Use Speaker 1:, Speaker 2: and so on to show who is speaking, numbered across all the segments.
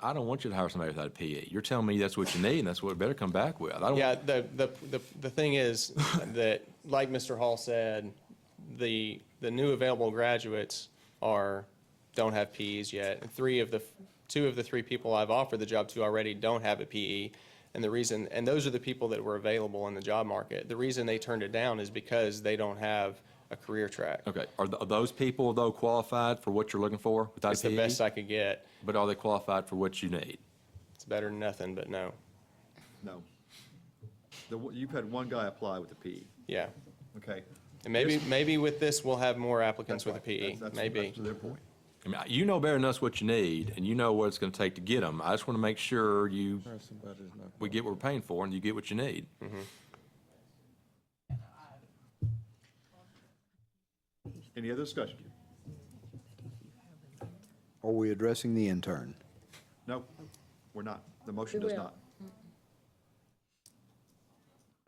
Speaker 1: I don't want you to hire somebody without a PE. You're telling me that's what you need and that's what it better come back with. I don't.
Speaker 2: Yeah, the, the, the, the thing is that, like Mr. Hall said, the, the new available graduates are, don't have PEs yet. Three of the, two of the three people I've offered the job to already don't have a PE. And the reason, and those are the people that were available in the job market. The reason they turned it down is because they don't have a career track.
Speaker 1: Okay, are, th- are those people though qualified for what you're looking for without
Speaker 2: It's
Speaker 1: a PE?
Speaker 2: the best I could get.
Speaker 1: But are they qualified for what you need?
Speaker 2: It's better than nothing, but no.
Speaker 3: No. The, one- you've had one guy apply with a PE,
Speaker 2: Yeah.
Speaker 3: okay?
Speaker 2: And maybe, maybe with this, we'll have more applicants
Speaker 3: That's
Speaker 2: with a
Speaker 3: right.
Speaker 2: PE,
Speaker 3: That's- that's-
Speaker 2: maybe.
Speaker 3: That's their point.
Speaker 1: I mean, you know better than us what you need, and you know what it's going to take to get them. I just want to make sure you, we get what we're paying for, and you get what you need.
Speaker 3: Any other discussion?
Speaker 4: Are we addressing the intern?
Speaker 3: No, we're not. The motion
Speaker 5: We
Speaker 3: does
Speaker 5: will.
Speaker 3: not.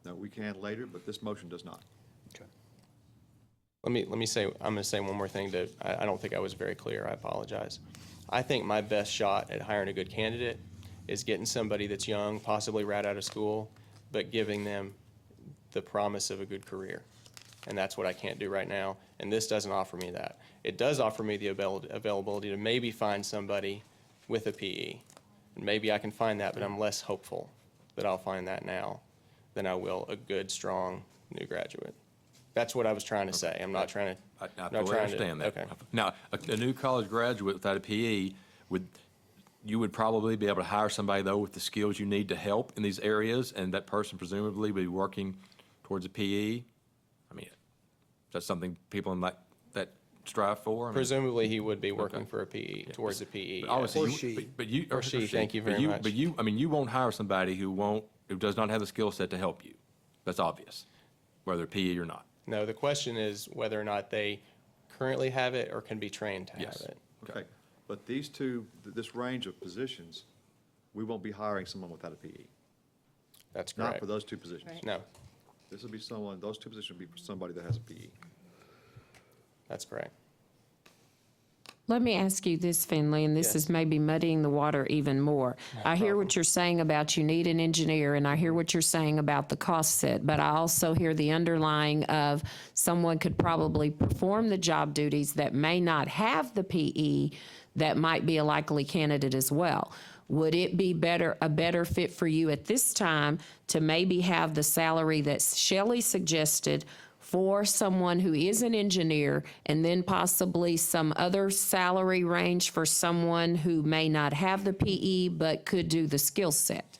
Speaker 3: No, we can later, but this motion does not.
Speaker 2: Let me, let me say, I'm going to say one more thing to, I, I don't think I was very clear. I apologize. I think my best shot at hiring a good candidate is getting somebody that's young, possibly right out of school, but giving them the promise of a good career. And that's what I can't do right now. And this doesn't offer me that. It does offer me the avail- availability to maybe find somebody with a PE. And maybe I can find that, but I'm less hopeful that I'll find that now than I will a good, strong new graduate. That's what I was trying to say. I'm not trying to.
Speaker 1: I, I
Speaker 2: not
Speaker 1: totally
Speaker 2: trying to-
Speaker 1: understand that.
Speaker 2: Okay.
Speaker 1: Now, a, a new college graduate without a PE would, you would probably be able to hire somebody though with the skills you need to help in these areas, and that person presumably would be working towards a PE. I mean, is that something people in that, that strive for? I mean,
Speaker 2: Presumably, he would be working for a PE, towards E. a PE.
Speaker 1: but
Speaker 2: yeah.
Speaker 1: obviously
Speaker 4: Or
Speaker 1: you-
Speaker 4: she.
Speaker 1: but- But you.
Speaker 2: Or she, thank you
Speaker 1: but
Speaker 2: very much.
Speaker 1: But you, I mean, you won't hire somebody who won't, who does not have the skill set to help you. That's obvious, whether PE or not.
Speaker 2: No, the question is whether or not they currently have it or can be trained to have
Speaker 1: Yes.
Speaker 2: it.
Speaker 3: Okay, but these two, th- this range of positions, we won't be hiring someone without a PE.
Speaker 2: That's
Speaker 3: Not
Speaker 2: correct.
Speaker 3: for those two positions.
Speaker 2: No,
Speaker 3: This will be someone, those two positions will be for somebody that has a E. PE.
Speaker 2: that's correct.
Speaker 5: Let me ask you this, Finley, and this
Speaker 2: Yes.
Speaker 5: is maybe muddying the water even more. I hear what you're saying about you need an engineer, and I hear what you're saying about the cost set, but I also hear the underlying of someone could probably perform the job duties that may not have the PE that might be a likely candidate as well. Would it be better, a better fit for you at this time to maybe have the salary that Shelley suggested for someone who is an engineer and then possibly some other salary range for someone who may not have the PE but could do the skill set?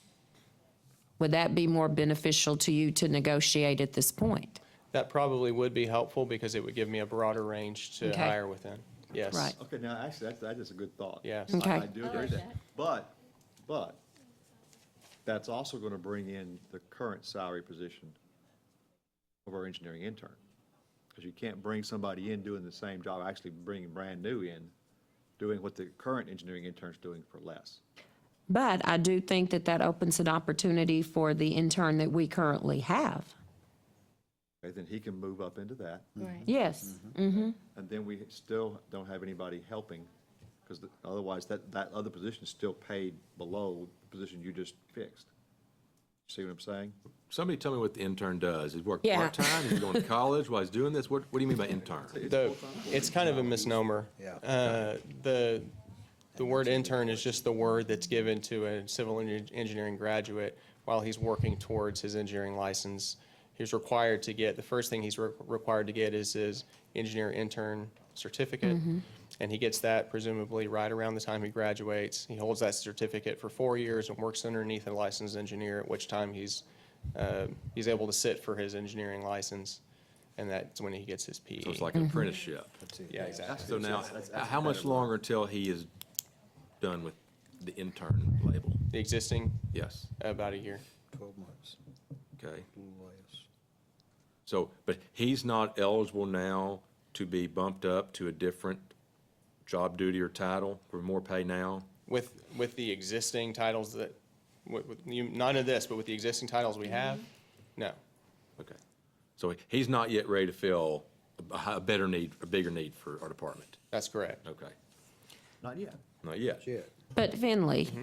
Speaker 5: Would that be more beneficial to you to negotiate at this point?
Speaker 2: That probably would be helpful because it would give me a broader range to
Speaker 5: Okay.
Speaker 2: hire within. Yes.
Speaker 5: Right.
Speaker 3: Okay, now, actually, that's, that is a good thought.
Speaker 2: Yes.
Speaker 3: I-
Speaker 5: Okay.
Speaker 3: I do agree with that. But, but, that's also going to bring in the current salary position of our engineering intern. Because you can't bring somebody in doing the same job, actually bringing brand new in, doing what the current engineering intern's doing for less.
Speaker 5: But I do think that that opens an opportunity for the intern that we currently have.
Speaker 3: Okay, then he can move up into that.
Speaker 5: Mm-hmm. Yes.
Speaker 3: And then we still don't have anybody helping, because otherwise that, that other position is still paid below the position you just fixed. See what I'm saying?
Speaker 1: Somebody tell me what the intern does. He's work
Speaker 5: Yeah.
Speaker 1: part-time, he's going to college while he's doing this? What, what do you mean by intern?
Speaker 2: The, it's kind of a misnomer.
Speaker 4: Yeah.
Speaker 2: Uh, The, the word intern is just the word that's given to a civil en- engineering graduate while he's working towards his engineering license. He's required to get, the first thing he's re- required to get is his engineer intern certificate. And he gets that presumably right around the time he graduates. He holds that certificate for four years and works underneath a licensed engineer, at which time he's, uh, he's able to sit for his engineering license. And that's when he gets his E. PE.
Speaker 1: So it's like an apprenticeship.
Speaker 2: Yeah, exactly.
Speaker 1: So now, how much longer till he is done with the intern label?
Speaker 2: The existing,
Speaker 1: Yes,
Speaker 2: about a year.
Speaker 4: Twelve months,
Speaker 1: okay.
Speaker 4: a little less.
Speaker 1: So, but he's not eligible now to be bumped up to a different job duty or title for more pay now?
Speaker 2: With, with the existing titles that, with, with, you, none of this, but with the existing titles we have, no.
Speaker 1: Okay. So he- he's not yet ready to fill a hi- a better need, a bigger need for our department?
Speaker 2: That's correct.
Speaker 1: Okay,
Speaker 3: Not yet.
Speaker 1: not yet.
Speaker 4: Shit.
Speaker 5: But Finley,